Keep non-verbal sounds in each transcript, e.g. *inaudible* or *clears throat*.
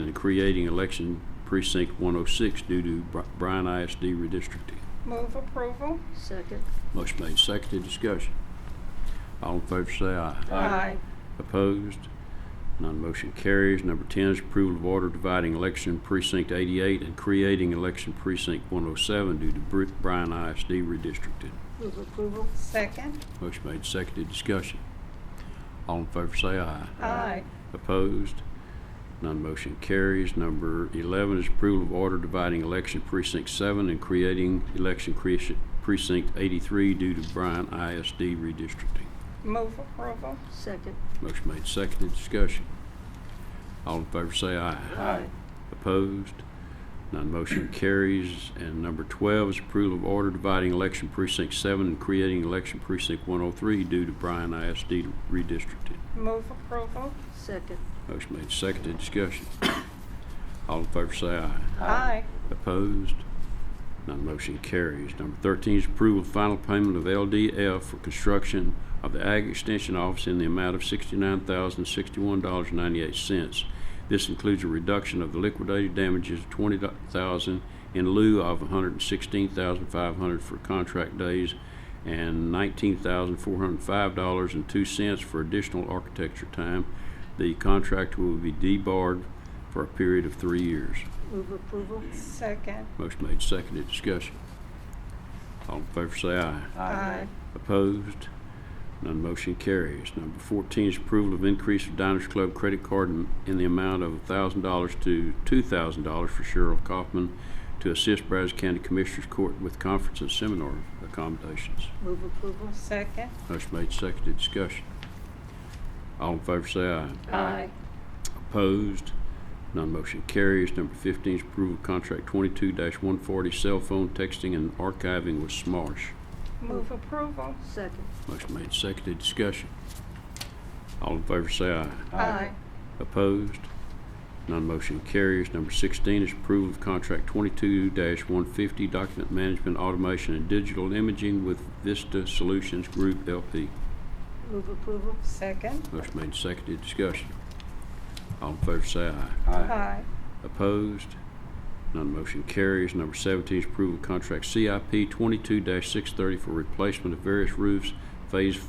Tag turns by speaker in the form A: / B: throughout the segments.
A: and creating election precinct 106 due to Br- Bryan ISD redistricting.
B: Move approval.
C: Second.
A: Motion made, seconded, discussion. All in favor say aye.
B: Aye.
A: Opposed? None motion carries. Number 10 is approval of order dividing election precinct 88 and creating election precinct 107 due to Br- Bryan ISD redistricting.
C: Move approval.
B: Second.
A: Motion made, seconded, discussion. All in favor say aye.
B: Aye.
A: Opposed? None motion carries. Number 11 is approval of order dividing election precinct 7 and creating election cre- precinct 83 due to Bryan ISD redistricting.
B: Move approval.
C: Second.
A: Motion made, seconded, discussion. All in favor say aye.
C: Aye.
A: Opposed? None motion carries. And number 12 is approval of order dividing election precinct 7 and creating election precinct 103 due to Bryan ISD redistricting.
B: Move approval.
C: Second.
A: Motion made, seconded, discussion. All in favor say aye.
B: Aye.
A: Opposed? None motion carries. Number 13 is approval of final payment of LDF for construction of the Ag Extension Office in the amount of $69,061.98. This includes a reduction of the liquidated damages of $20,000 in lieu of $116,500 for contract days and $19,405.02 for additional architecture time. The contract will be debarred for a period of three years.
C: Move approval.
B: Second.
A: Motion made, seconded, discussion. All in favor say aye.
B: Aye.
A: Opposed? None motion carries. Number 14 is approval of increase of Diners Club credit card in- in the amount of $1,000 to $2,000 for Cheryl Kaufman to assist Brazos County Commissioners Court with conference and seminar accommodations.
C: Move approval.
B: Second.
A: Motion made, seconded, discussion. All in favor say aye.
C: Aye.
A: Opposed? None motion carries. Number 15 is approval of contract 22-140 cell phone texting and archiving with Smarsh.
B: Move approval.
C: Second.
A: Motion made, seconded, discussion. All in favor say aye.
B: Aye.
A: Opposed? None motion carries. Number 16 is approval of contract 22-150 document management automation and digital imaging with Vista Solutions Group LP.
C: Move approval.
B: Second.
A: Motion made, seconded, discussion. All in favor say aye.
B: Aye.
A: Opposed? None motion carries. Number 17 is approval of contract CIP 22-630 for replacement of various roofs, Phase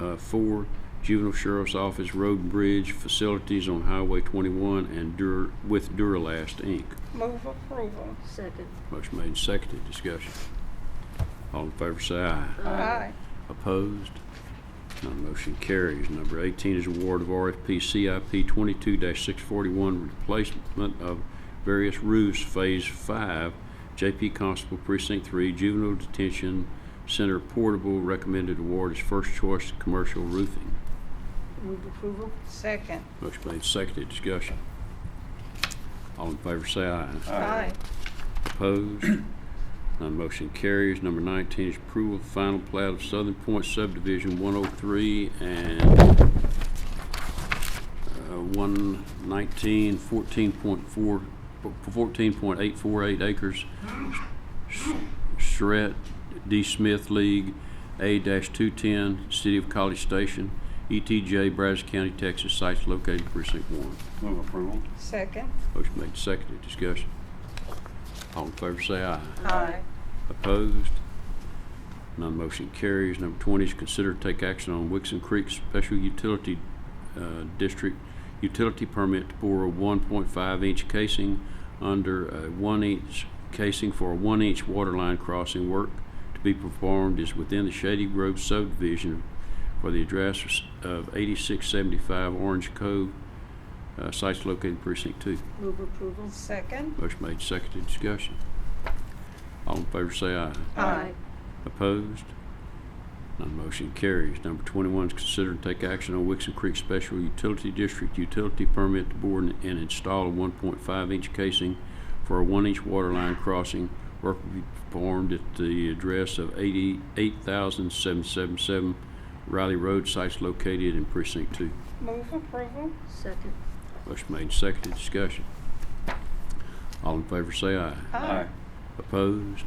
A: uh, 4, Juvenile Sheriff's Office, Road and Bridge, Facilities on Highway 21, and Dur- with Duralast, Inc.
B: Move approval.
C: Second.
A: Motion made and seconded. Discussion. All in favor say aye.
B: Aye.
A: Opposed? None motion carries. Number 18 is award of RFP CIP 22-641, replacement of various roofs, Phase 5, JP Constable Precinct 3, Juvenile Detention Center Portable, recommended award is first choice commercial roofing.
C: Move approval.
B: Second.
A: Motion made, seconded, discussion. All in favor say aye.
B: Aye.
A: Opposed? *clears throat* None motion carries. Number 19 is approval of final plat of Southern Point subdivision 103 and uh, 119, 14.4, 14.848 acres. Charette D. Smith League, A-210, City of College Station, ETJ, Brazos County, Texas, sites located precinct 1.
D: Move approval.
B: Second.
A: Motion made, seconded, discussion. All in favor say aye.
B: Aye.
A: Opposed? None motion carries. Number 20 is consider to take action on Wixon Creek Special Utility uh, District Utility Permit to bore a 1.5-inch casing under a 1-inch casing for a 1-inch water line crossing work to be performed is within the Shady Grove subdivision for the address of 8675 Orange Cove, uh, sites located in precinct 2.
C: Move approval.
B: Second.
A: Motion made, seconded, discussion. All in favor say aye.
B: Aye.
A: Opposed? None motion carries. Number 21 is considered to take action on Wixon Creek Special Utility District Utility Permit to board and install a 1.5-inch casing for a 1-inch water line crossing. Work will be performed at the address of 88777 Riley Road, sites located in Precinct 2.
B: Move approval.
C: Second.
A: Motion made, seconded, discussion. All in favor say aye.
B: Aye.
A: Opposed?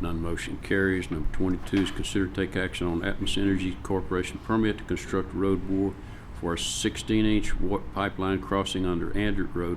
A: None motion carries. Number 22 is consider to take action on Atmos Energy Corporation permit to construct road bore for a 16-inch wa- pipeline crossing under Andrew Road